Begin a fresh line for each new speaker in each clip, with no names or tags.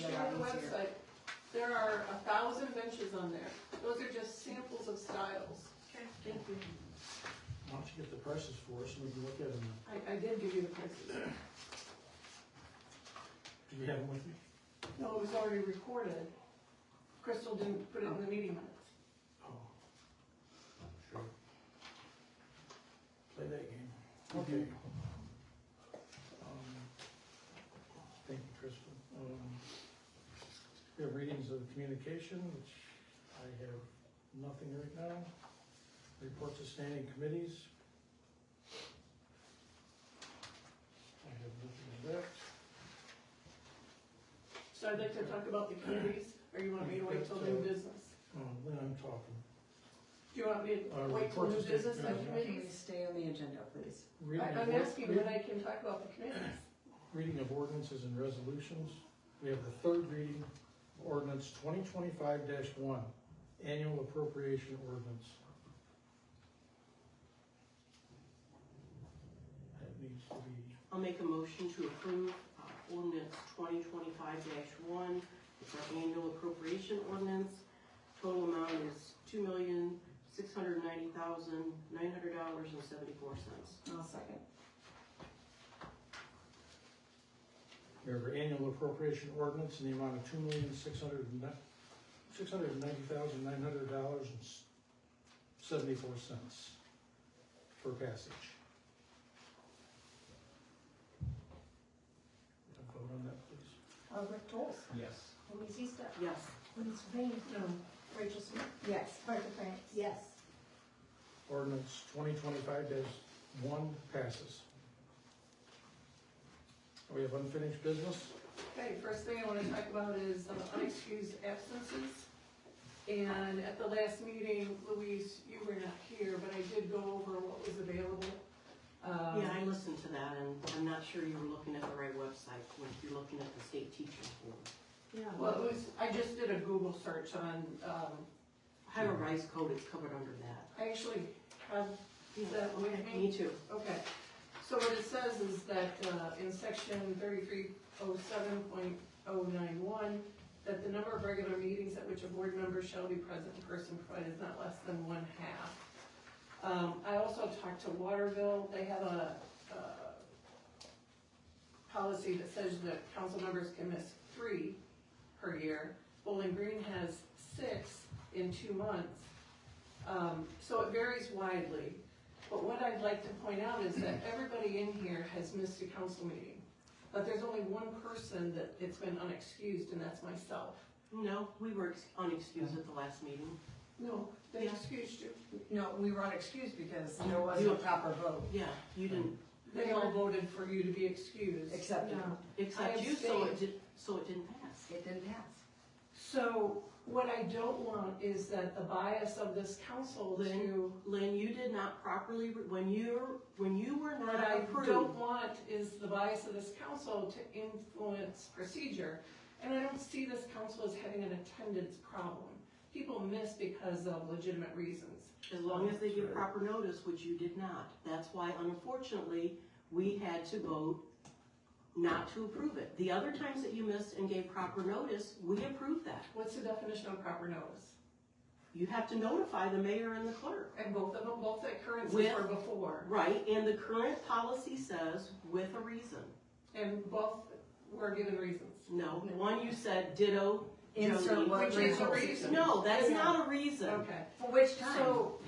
website, there are a thousand benches on there. Those are just samples of styles.
Okay.
Thank you.
Why don't you get the prices for us and we can look at them.
I, I did give you the prices.
Do you have them with you?
No, it was already recorded. Crystal didn't put it in the meeting minutes.
Oh. Sure. Play that game.
Okay.
Um, Thank you, Crystal. Um, We have readings of communication, which I have nothing right now. Reports of standing committees. I have nothing on that.
So I'd like to talk about the committees, or you want me to wait till new business?
Um, Then I'm talking.
Do you want me
Uh,
to wait till
reports
new
of state
business and
business.
Can we
committees?
stay on the agenda, please?
I,
Reading of
I'm
work-
asking when I can talk about the committees.
Reading of ordinances and resolutions. We have the third reading, of ordinance twenty twenty-five one, annual appropriation ordinance. That needs to be,
I'll make a motion to approve uh, ordinance twenty twenty-five one. It's our annual appropriation ordinance. Total amount is two million, six hundred ninety thousand, nine hundred dollars and seventy-four cents.
I'll second.
remember, annual appropriation ordinance in the amount of two million, six hundred and nine, six hundred and ninety thousand, nine hundred dollars and seventy-four cents for passage. A Vote on that, please.
Albert Dolls,
Yes.
Louise Easter,
Yes,
Denise Rain, Rachel Smith,
Yes.
Martha France.
Yes.
Ordinance twenty twenty-five one passes. We have unfinished business.
Okay, first thing I wanna talk about is uh, unexcused absences. And at the last meeting, Louise, you were not here, but I did go over what was available. Um,
yeah, I listened to that and I'm not sure you were looking at the right website when you're looking at the state teacher form.
Yeah.
Well, it was, I just did a Google search on, um,
Higher rise code is covered under that.
I actually have that with me.
Me too.
Okay, so what it says is that uh, in section thirty-three oh seven point oh nine one, that the number of regular meetings at which a board member shall be present in person provided is not less than one half. Um, I also talked to Waterville, they have a, uh, policy that says that council members can miss three per year. Bowling Green has six in two months. Um, so it varies widely. But what I'd like to point out is that everybody in here has missed a council meeting. But there's only one person that it's been unexcused, and that's myself.
No, we were ex- unexcused at the last meeting.
No,
they
excused you.
No, we were unexcused because there wasn't a proper vote
Yeah, you didn't,
They all voted for you to be excused.
accepted.
except you, so
abstained.
it did, so it didn't pass.
It didn't pass.
So what I don't want is that the bias of this council to,
Lynn, you did not properly, re- when you, when you were
what
not
I don't
approved.
want is the bias of this council to influence procedure. And I don't see this council as having an attendance problem. People miss because of legitimate reasons.
As long as they give proper notice, which you did not. That's why unfortunately, we had to vote not to approve it. The other times that you missed and gave proper notice, we approved that.
What's the definition of proper notice?
You have to notify the mayor and the clerk.
And both of them, both occurrences
With-
were before,
Right, and the current policy says with a reason.
and both were given reasons.
No, one you said ditto.
Insert
Jody.
what
Which is a
Rachel.
reason.
No, that's not a reason.
Okay.
For which time?
So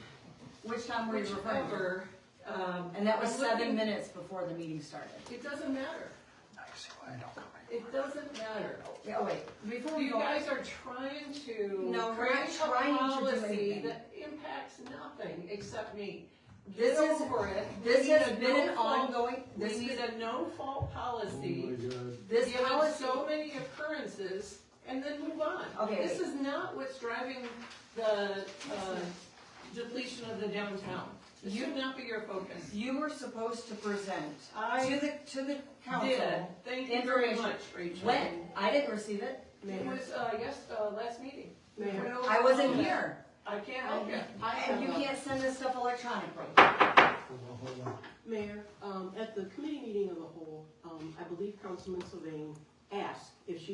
Which time were you referring to?
whichever, um.
And that was
I'm
seven
looking-
minutes before the meeting started.
It doesn't matter. It doesn't matter.
Yeah, oh wait, before we
You
go.
guys are trying to.
No, we're
create
not trying
a
to do
policy
anything.
that impacts nothing except me.
This
Get
is-
over it.
This
We need
has
a
been an
no fault-
ongoing,
We
this
need
is,
a no-fault
Oh
policy.
God.
this
given
policy.
so many occurrences and then move on.
Okay,
This
wait.
is not what's driving the uh, depletion of the downtown. This
You-
should not be your focus.
You were supposed to present to
I
the, to the
did,
council.
thank you very
Information.
much, Rachel.
When? I didn't receive it.
It was, uh, yes, uh, last meeting. We
Mayor.
went over
I wasn't
all that.
here.
I can't help you.
And you can't send this stuff electronically.
Hold on, hold on.
Mayor, um, at the committee meeting of the whole, um, I believe Councilman Sylvain asked if she